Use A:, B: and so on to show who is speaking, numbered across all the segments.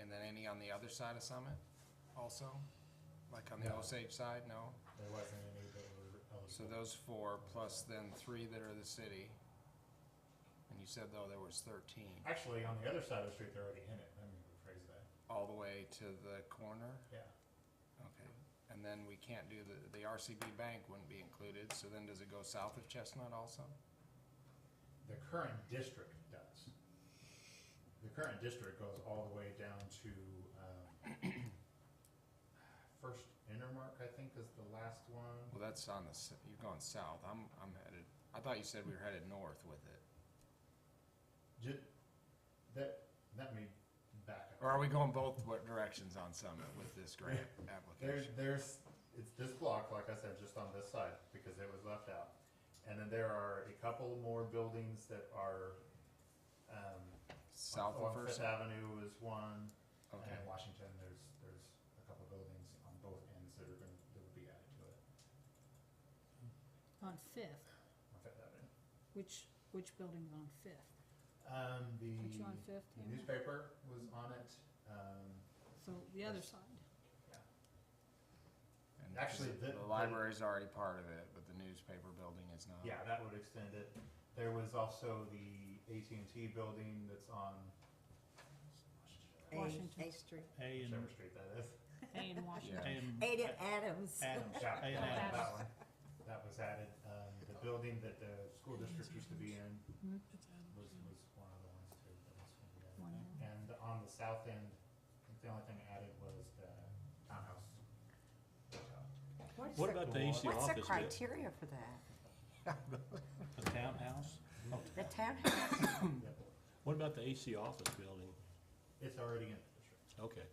A: any on the other side of Summit also? Like on the
B: No.
A: Osage side, no?
B: There wasn't any that were um, eligible.
A: So those four plus then three that are the city. And you said though there was thirteen,
B: Actually, on the other side of the street, they're already in it. Let me rephrase that.
A: all the way to the corner?
B: Yeah.
A: Okay, and then we can't do the, the RCB bank wouldn't be included, so then does it go south of Chestnut also?
B: The current district does. The current district goes all the way down to, um, First Intermark, I think, is the last one.
A: Well, that's on the, s- you're going south, I'm, I'm headed, I thought you said we were headed north with it.
B: Ju- that, let me back up.
A: Or are we going both wa- directions on Summit with this grant
B: There's,
A: application?
B: there's, it's this block, like I said, just on this side, because it was left out. And then there are a couple more buildings that are, um,
A: South
B: on
A: of First,
B: Fifth Avenue is one, and
A: okay,
B: in Washington, there's, there's a couple buildings on both ends that are gonna, that would be added to it,
C: On Fifth,
B: on Fifth Avenue.
C: which, which building's on Fifth?
B: Um, the
C: Aren't you on Fifth,
B: the
C: Tamara?
B: newspaper was on it, um,
A: Uh-huh.
C: So the other
B: Yes.
C: side.
A: and
B: actually,
A: the-
B: the-
A: the
B: the-
A: library's already part of it, but the newspaper building is not.
B: yeah, that would extend it. There was also the AT&T building that's on
D: A-
C: Washington.
D: A Street.
E: A and,
B: whichever street that is.
C: A in Washington.
E: A and
D: Ada Adams.
E: Adams.
B: Yeah,
E: A and
C: Yeah.
E: Adams.
B: that one, that was added. Um, the building that the school district used to be in
C: Hmm?
B: was, was one of the ones too. that was gonna be added.
C: One of them.
B: And on the south end, I think the only thing added was the townhouse. hotel.
D: is
E: What
D: the-
E: about the AC
D: What's the
E: office bit?
D: criteria for that?
E: The townhouse?
D: The townhouse?
B: Yep.
E: What about the AC office building?
B: It's already in the district.
E: Okay.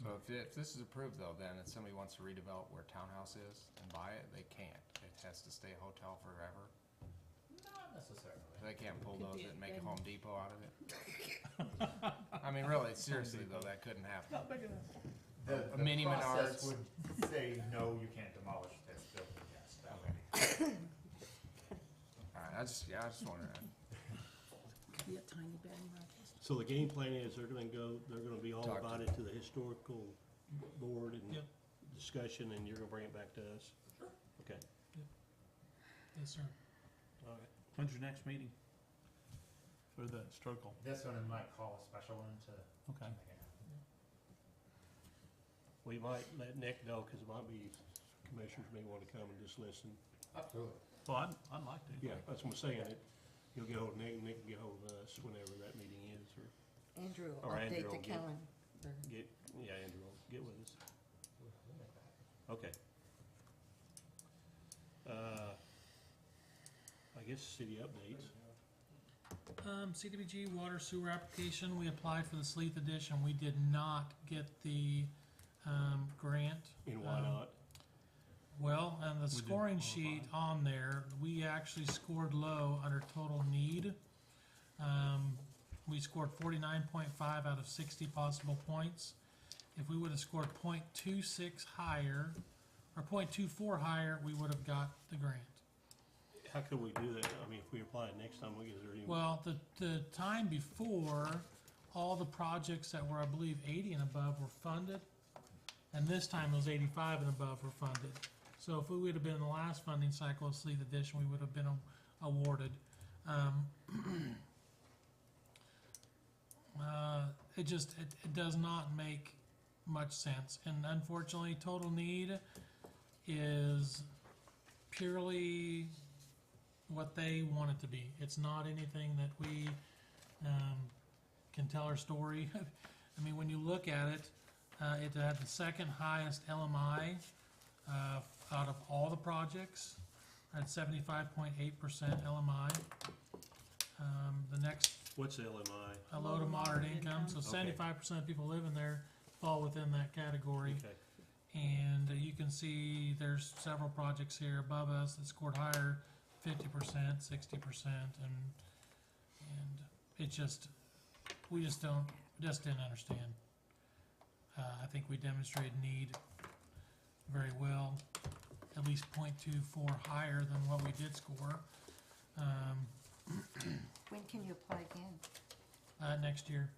A: So if, if this is approved though, then if somebody wants to redevelop where townhouse is and buy it, they can't. It has to stay hotel forever.
B: Not necessarily.
A: They can't bulldoze
C: be
A: it
C: a
A: and make a
C: bed.
A: Home Depot out of it. I mean, really, seriously though, that couldn't happen.
B: The,
A: A
B: the
A: mini
B: process
A: Menards.
B: would say, no, you can't demolish this building, yes, that would be.
A: All right, I just, yeah, I just wondered.
C: Could be a tiny bed and breakfast.
F: So the game plan is they're gonna go, they're gonna be all
A: Talk to
F: about it to the historical board and
G: Yep.
F: discussion, and you're gonna bring it back to us? Okay,
G: Yes, sir.
F: all right.
E: When's your next meeting? For the Strokle.
B: This one might call a special one to. make it
E: Okay.
B: happen.
F: We might let Nick know, cause it might be, commissioners may wanna come and just listen.
B: Absolutely.
E: Well, I'd, I'd like to.
F: Yeah, that's what I'm saying, it, you'll get hold of Nick, and Nick can get hold of us whenever that meeting is, or
D: Andrew, will
F: Or Andrew
D: update the
F: will get-
D: calendar.
F: get, yeah, Andrew, will get with us.
B: We'll- we'll make that happen.
F: Okay. Uh, I guess city updates.
G: Um, CDBG water sewer application, we applied for the Sleeth edition, we did not get the, um, grant.
F: And why
G: Um,
F: not?
G: Well, and the
E: didn't
G: scoring
E: qualify.
G: sheet on there, we actually scored low under total need. Um, we scored forty-nine point five out of sixty possible points. If we would've scored 0.26 higher, or 0.24 higher, we would've got the grant.
F: How could we do that? I mean, if we apply it next time, we get there any?
G: Well, the, the time before, all the projects that were, I believe, eighty and above were funded. And this time it was eighty-five and above were funded. So if we would have been in the last funding cycle of Sleeth Edition, we would have been a- awarded. Um, uh, it just, it, it does not make much sense. And unfortunately, total need is purely what they want it to be. It's not anything that we um, can tell our story. I mean, when you look at it, uh, it had the second highest LMI uh, out of all the projects at 75.8% LMI. Um, the next,
F: What's LMI?
G: a low to moderate income, so 75% of people living there fall within that category.
F: Okay,
G: And uh, you can see there's several projects here above us that scored higher, fifty percent, sixty percent, and, and it just, we just don't, just didn't understand. Uh, I think we demonstrated need very well, at least point two four higher than what we did score, um,
D: When can you apply again?
G: uh, next year.